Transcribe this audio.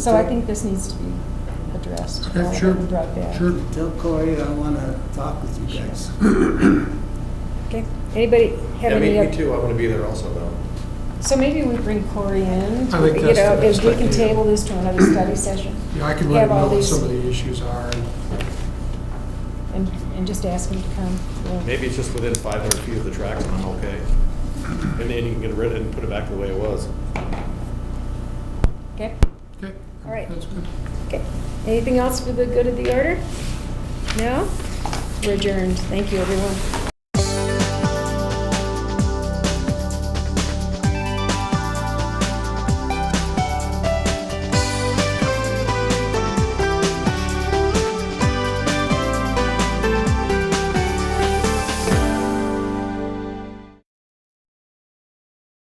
So I think this needs to be addressed. Okay, all of it sure, and Brought back. Sure. Tell Corey I want to talk with you guys. Okay, anybody have Yeah, any? me, me oth- too, I want to be there also, though. So maybe we bring Corey in, I think you that's know, the if best we can idea. table this to another study session Yeah, I can Yeah, let him well, know what these- some of the issues are. and- and, and just ask him to come. We'll- Maybe it's just within 500 feet of the tracks, and I'm okay. And then you can get rid of it and put it back the way it was. Okay, Okay. All right. That's good. okay. Anything else for the good of the order? No? We're adjourned. Thank you, everyone.